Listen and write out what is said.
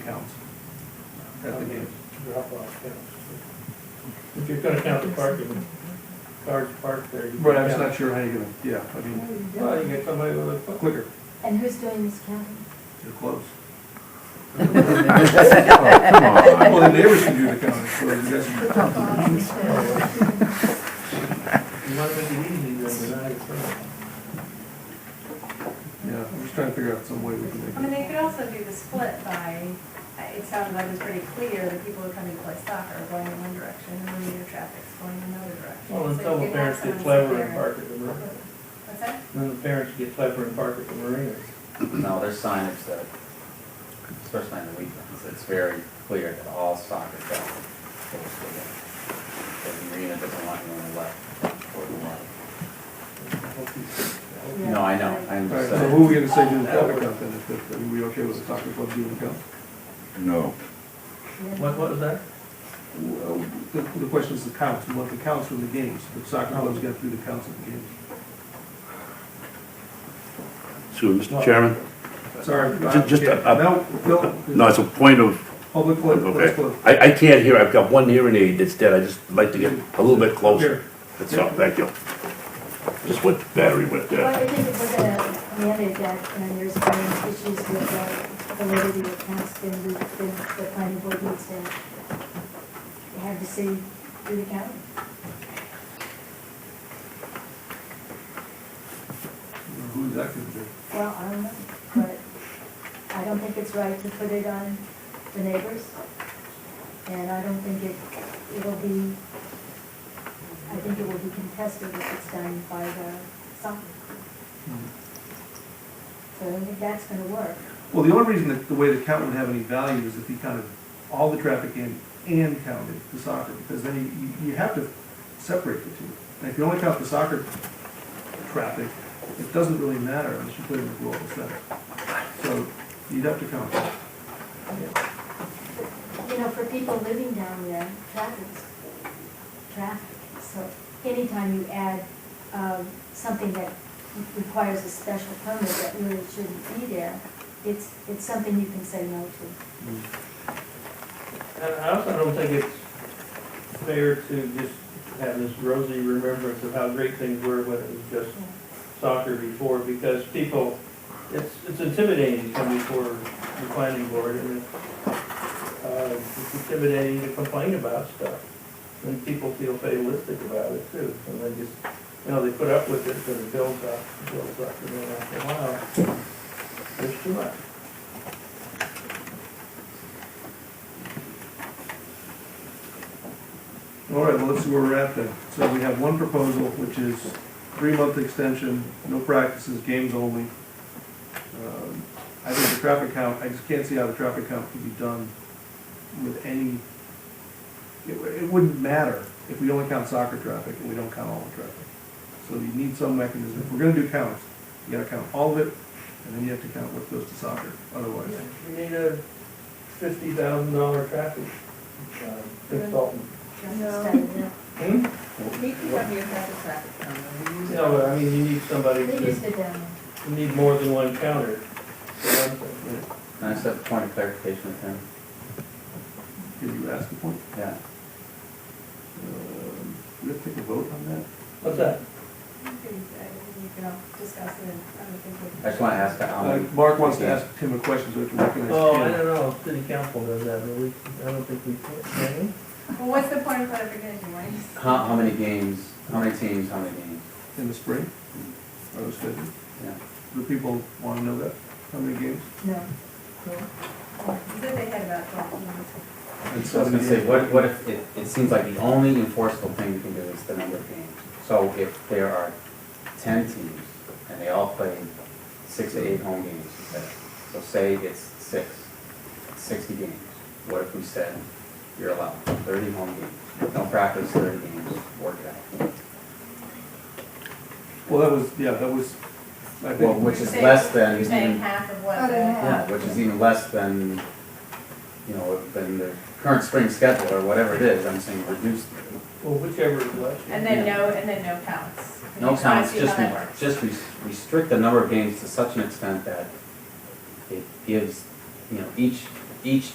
At the gate. Drop off, yeah. If you're gonna count the parking, cars parked there. you But I'm just can not sure how you're gonna, yeah, I How do mean, you count. do Well, it? you get somebody with a foot. quicker, And who's doing this counting? they're close. Come Well, on. the neighbors can do the counting, so it doesn't- You wanna make it easy, then deny it. yeah, I'm just trying to figure out some way we I can mean, make it. they could also do the split by, it sounded like it was pretty clear that people who are coming to play soccer are going in one direction and the meter traffic's going in another direction. Well, then So you some could have parents get someone sit clever there and park at the marina. What's that? Then the parents get clever and park at the marina. No, there's signage that, especially on the weekends, it's very clear that all soccer fields goes to the, the arena doesn't want anyone left or the right. Yeah. No, I know, I'm All right, just so who are we saying. gonna say do the traffic count then, if, if, are we okay with the soccer club doing the count? No. What, what was that? Well, The, the question is the counts, we want the counts from the games, the soccer club's got to do the counts of the games. Excuse me, Mr. Chairman? Sorry. Ju- just a- a- No, no. No, it's a point of, Public, club, public okay. club. I, I can't hear, I've got one hearing aid that's dead, I just like to get a little bit closer. That's all, thank you. Just what battery went Well, dead. I think it was a mandate that, and there's been issues with the validity of counts, then we, then the planning board needs to have the city do the counting. Who's that gonna be? Well, I don't know, but I don't think it's right to put it on the neighbors. And I don't think it, it'll be, I think it will be contested if it's done by the something. Hmm. So I don't think that's gonna work. Well, the only reason that the way the count would have any value is if he counted all the traffic in and counted the soccer, because then you- you, you have to separate the two. And if you only count the soccer traffic, it doesn't really matter unless you put it in the global center. So you'd have to count. it. You know, for people living down there, traffic's traffic. So anytime you add, um, something that requires a special permit that really shouldn't be there, it's, it's something you can say no to. And I also don't think it's fair to just have this rosy remembrance of how great things were when it was just 嗯 soccer before, because people, it's, it's intimidating to come before the planning board, and uh, it's intimidating to complain about stuff. And people feel fatalistic about it too, and they just, you know, they put up with it, and it builds up, builds up, and then after a while, there's too much. All right, well, let's see where we're at then. So we have one proposal, which is three-month extension, no practices, games only. Um, I think the traffic count, I just can't see how the traffic count could be done with any, it, it wouldn't matter if we only count soccer traffic and we don't count all the traffic. So you need some mechanism. If we're gonna do counts, you gotta count all of it, and then you have to count what goes to soccer, otherwise. We need a fifty thousand dollar traffic um, consultant. No. Study, yeah. Hmm? DPW has a traffic counter. We use it. No, but I mean, you need somebody They to, used it down you need more than one counter. for one thing. Can I just have a point of clarification with him? Did you ask the point? Yeah. Um, We have to take a vote on that? What's that? You can, uh, you can all discuss it, I don't think we. I just wanna ask how Uh, many. Mark wants to ask Tim a question, so we can recognize Oh, I him. don't know, city council does that, but we, I don't think we can, can we? Well, what's the point of clarification, why? How, how many games, how many teams, how many games? In the spring? Or the schedule? Yeah. Do people want to know that? How many games? there. No. You said they had about twelve minutes. So I was gonna say, what, what if, it, it seems like the only enforceable thing we can do is the number of games. So if there are ten teams and they all play six to eight home games, you said, so say it's six, sixty games. What if we said you're allowed thirty home games, no practice, thirty games, work it out? Well, that was, yeah, that was, I Well, think, which is less than. You're saying half of what? Other the- half. Yeah, which is even less than, you know, than the current spring schedule or whatever it is, I'm saying reduce Well, whichever is left. And then no, and then no counts. No Just wanna counts, see just, how that works. just res- restrict the number of games to such an extent that it gives, you know, each, each